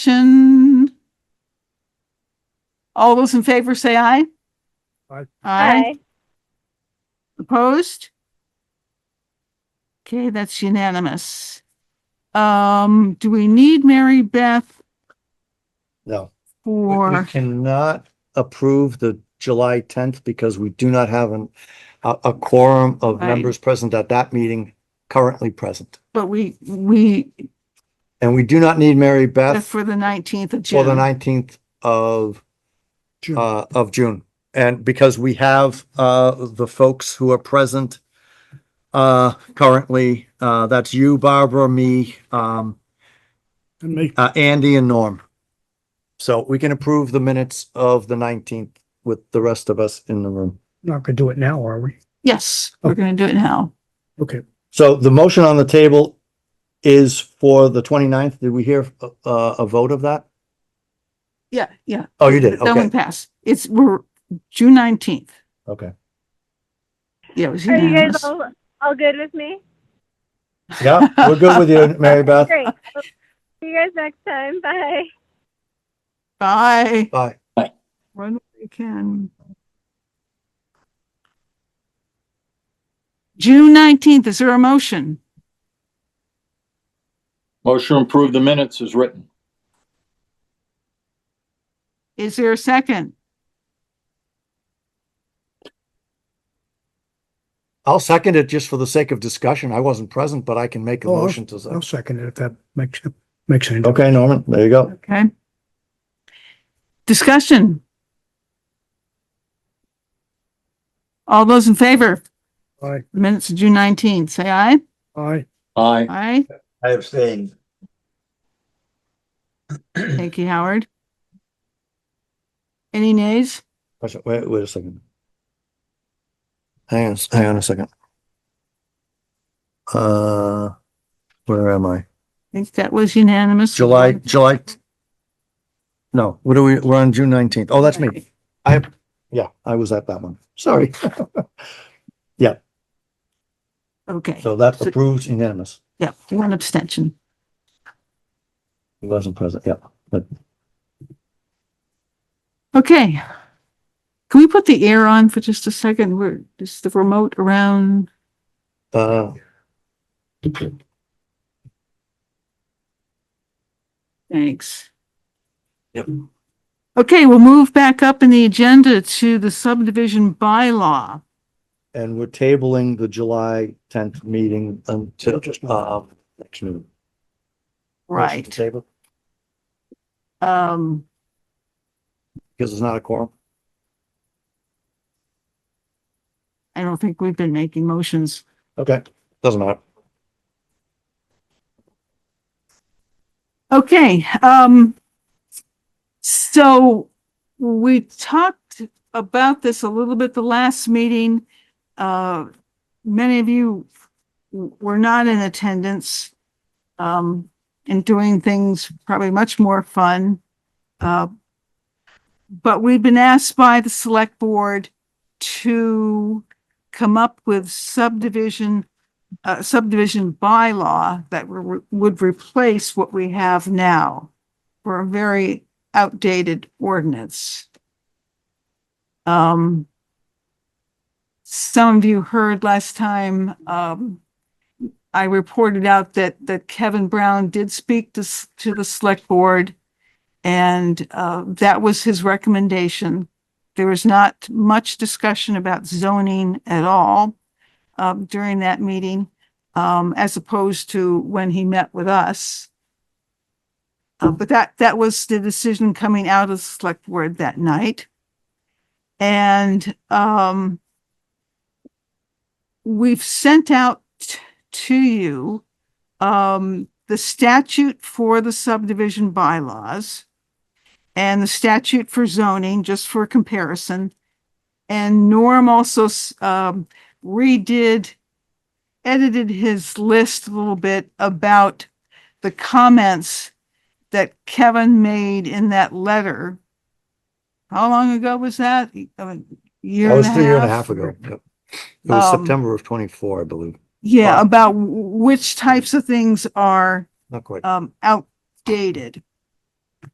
Discussion? All those in favor say aye. Aye. Aye. Opposed? Okay, that's unanimous. Um, do we need Mary Beth No. We- We for, cannot approve the July tenth because we do not have an, a, a quorum of Right. members present at that meeting currently present. but we, we, And we do not need Mary Beth for the nineteenth of for the June? nineteenth of, uh, of June. And because we have, uh, the folks who are present, uh, currently, uh, that's you, Barbara, me, um, And make, uh, Andy and Norm. So we can approve the minutes of the nineteenth with the rest of us in the room. not gonna do it now, are we? Yes, we're gonna do it now. Okay, So the motion on the table is for the 29th. Did we hear a, a vote of that? Yeah, yeah. Oh, you did. That one Okay, passed. It's, we're, June nineteenth. okay. Yeah, it was Are you unanimous. guys all, all good with me? Yeah, we're good with you, Mary Beth. Great. Well, See you guys next time. Bye. Bye. Bye. Run where you can. June nineteenth, is there a motion? Motion to approve the minutes is written. Is there a second? I'll second it just for the sake of discussion. I wasn't present, but I can make a Oh, I'll- motion to I'll second. second it if that makes, makes any. difference. Okay, Norman, there you go. Okay. Discussion. All those in favor, Aye, The minutes of June nineteenth, say aye. aye, Aye. Aye. I abstained. Thank you, Howard. Any nays? Wait, wait a second. Hang on, hang on a second. Uh, where am I? I think that was unanimous. July, July. No, what are we, we're on June nineteenth. Oh, that's me. I, yeah, I was at that one. Sorry. Okay, So that approves unanimous. yeah, one abstention. He wasn't present, yeah. Okay. Can we put the air on for just a second? We're, is the remote around? Uh, Thanks. Yep. Okay, we'll move back up in the agenda to the subdivision bylaw. and we're tabling the July tenth meeting until, uh, next noon. Right, Table, um, because it's not a quorum. I don't think we've been making motions. Okay. Doesn't matter. Okay, um, so we talked about this a little bit the last meeting. Uh, many of you w- were not in attendance, um, and doing things probably much more fun. Uh, but we've been asked by the select board to come up with subdivision uh, subdivision bylaw that re- would replace what we have now for a very outdated ordinance. Um, some of you heard last time, um, I reported out that, that Kevin Brown did speak to, s- to the select board and, uh, that was his recommendation. There was not much discussion about zoning at all, um, during that meeting um, as opposed to when he met with us. Uh, but that, that was the decision coming out of the select board that night. And, um, we've sent out t- to you, um, the statute for the subdivision bylaws and the statute for zoning, just for comparison. And Norm also, s- um, redid edited his list a little bit about the comments that Kevin made in that letter. How long ago was that? A year That and was a half? a year and a half ago. Yep. It was Um, September of twenty-four, I believe. Yeah, Wow. about w- which types of things are Not quite. um outdated.